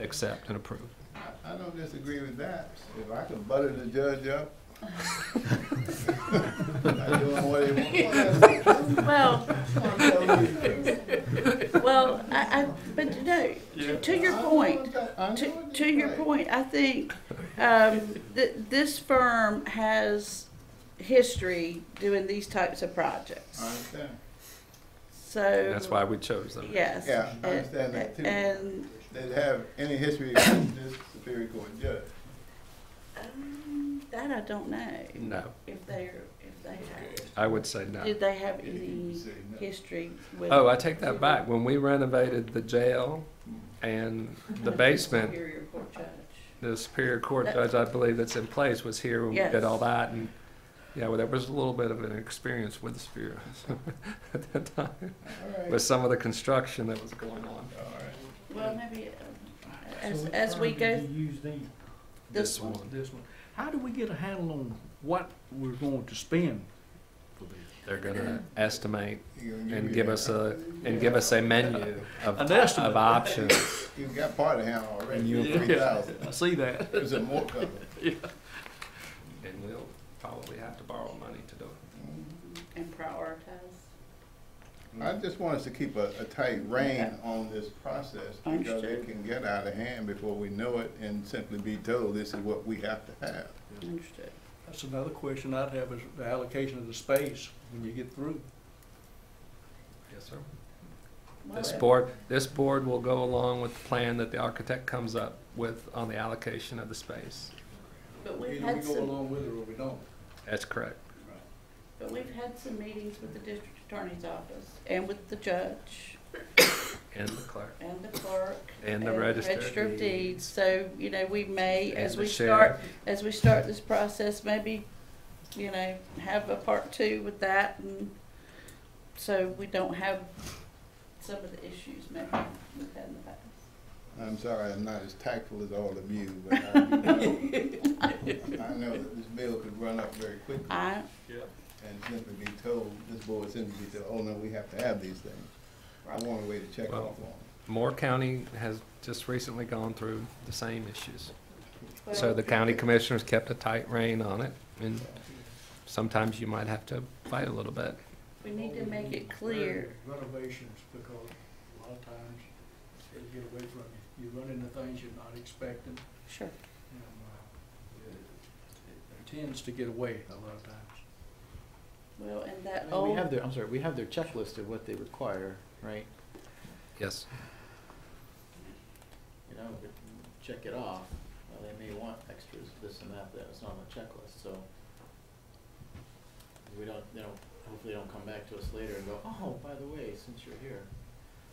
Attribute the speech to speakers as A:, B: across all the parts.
A: accept and approve.
B: I don't disagree with that. If I could butter the judge up. I do what he wants.
C: Well,
B: To
C: well, I, I, but no, to, to your point, to, to your point, I think, um, th- this firm has history doing these types of
B: I
C: projects,
B: understand.
C: so.
A: That's why we chose them.
C: Yes.
B: Yeah, I
C: and-
B: understand that too.
C: And,
B: That have any history with this Superior Court judge.
C: um, that I don't know,
A: No,
C: if they're, if they
A: I would say
C: have,
A: no.
C: did they have
B: If you
C: any
B: say no.
C: history with?
A: Oh, I take that back. When we renovated the jail
B: Hmm.
A: and the basement,
C: Superior Court Judge.
A: the Superior Court judge, I believe that's in place, was here when we
C: Yes.
A: did all that. And, yeah, well, there was a little bit of an experience with the Superior at that time,
B: All right,
A: with some of the construction that was going on.
B: all right.
C: Well, maybe, um, as,
D: So which
C: as we
D: firm
C: go,
D: did you Use then,
C: this one,
D: this one. How do we get a handle on what we're going to spend for this?
A: They're gonna estimate
B: He gonna
A: and
B: you
A: give
B: that.
A: us a, and give us a menu of,
D: An estimate.
A: of options.
B: You got part of him already.
A: And you-
B: Three thousand.
D: I see that.
B: There's a more coming.
A: And we'll probably have to borrow money to do it.
B: Hmm.
C: and prioritize.
B: I just want us to keep a, a tight rein on this process because it
C: Understood.
B: can get out of hand before we know it and simply be told this is what we have to have.
C: Understood.
D: That's another question I'd have is the allocation of the space when you get through.
A: Yes, sir.
C: Well,
A: This board, this board will go along with the plan that the architect comes up with on the allocation of the space.
C: But
D: Either we
C: we've had
D: go
C: some,
D: along with it or we don't.
A: That's correct.
C: but we've had some meetings with the district attorney's office and with the judge
A: And the clerk,
C: and the clerk
A: and the register.
C: of deeds, so, you know, we may,
A: And
C: as
A: the
C: we
A: sheriff.
C: start, as we start this process, maybe, you know, have a part two with that, and so we don't have some of the issues maybe we've had in the past.
B: I'm sorry, I'm not as tactful as all of you, but I do know, I know that this bill could run up very quickly
C: I,
B: and simply be told, this board simply be told, oh no, we have to have these things. I want a way to check
A: Well-
B: off on it.
A: Moore County has just recently gone through the same issues. So
C: well,
A: the county commissioners kept a tight rein on it, and sometimes you might have to fight a little bit.
C: we need to make it clear,
D: Renovations, because a lot of times they get away from you. You run into things you're not expecting.
C: sure,
D: and, uh, it- it Tends to get away a lot of times.
C: well, and that
E: I mean, We have
C: old,
E: their, I'm sorry, we have their checklist of what they require, right?
A: Yes.
E: You know, we can check it off. Well, they may want extras, this and that, that's not on the checklist, so. We don't, they don't, hopefully they don't come back to us later and go, oh, by the way, since you're here.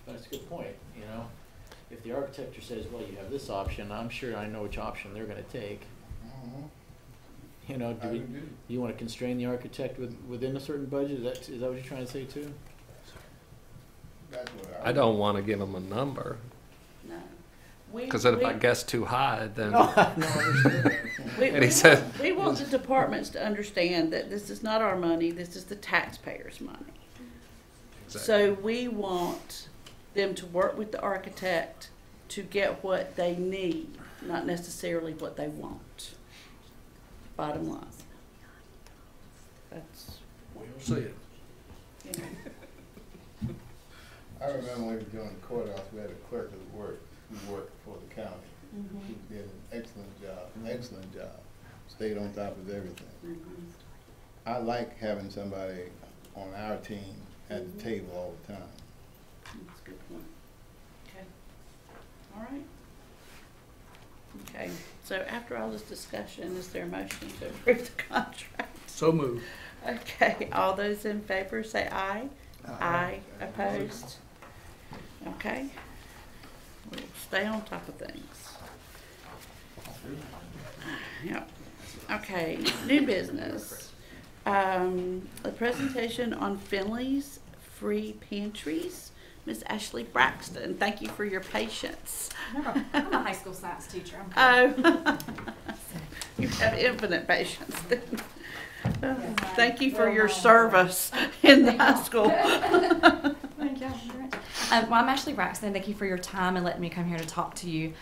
E: But it's a good point, you know? If the architecture says, well, you have this option, I'm sure I know which option they're gonna take.
B: Mhm.
E: You know, do
B: Uh-huh. I
E: we,
B: would do.
E: you wanna constrain the architect with, within a certain budget? Is that, is that what you're trying to say too?
B: That's what I.
A: I don't want to give them a number,
C: no. We-
A: because if I
C: we-
A: guess too high, then.
E: No, I understand.
C: We,
A: And
C: we
A: he said-
C: want- we want the departments to understand that this is not our money, this is the taxpayers' money. So we want them to work with the architect to get what they need, not necessarily what they want. Bottom line. That's,
D: Well said.
C: you know,
B: I remember when we were doing the courthouse, we had a clerk who worked, who worked for the county. He did an excellent job, an excellent job, stayed on top of everything.
C: mhm.
B: I like having somebody on our team at the table all the time.
C: That's a good point. Okay. All right. Okay, so after all this discussion, is there a motion to approve the contract?
D: So moved.
C: Okay, all those in favor say aye. Aye, opposed? Okay. We'll Stay on top of things. Yep, okay, new business. Um, a presentation on Finley's free pantries. Miss Ashley Braxton, thank you for your patience.
F: I'm a- I'm a high school science teacher. I'm good.
C: Oh. You have infinite patience. Thank you for your service in the high school.
F: Thank you. Um, well, I'm Ashley Braxton. Thank you for your time and letting me come here to talk to you.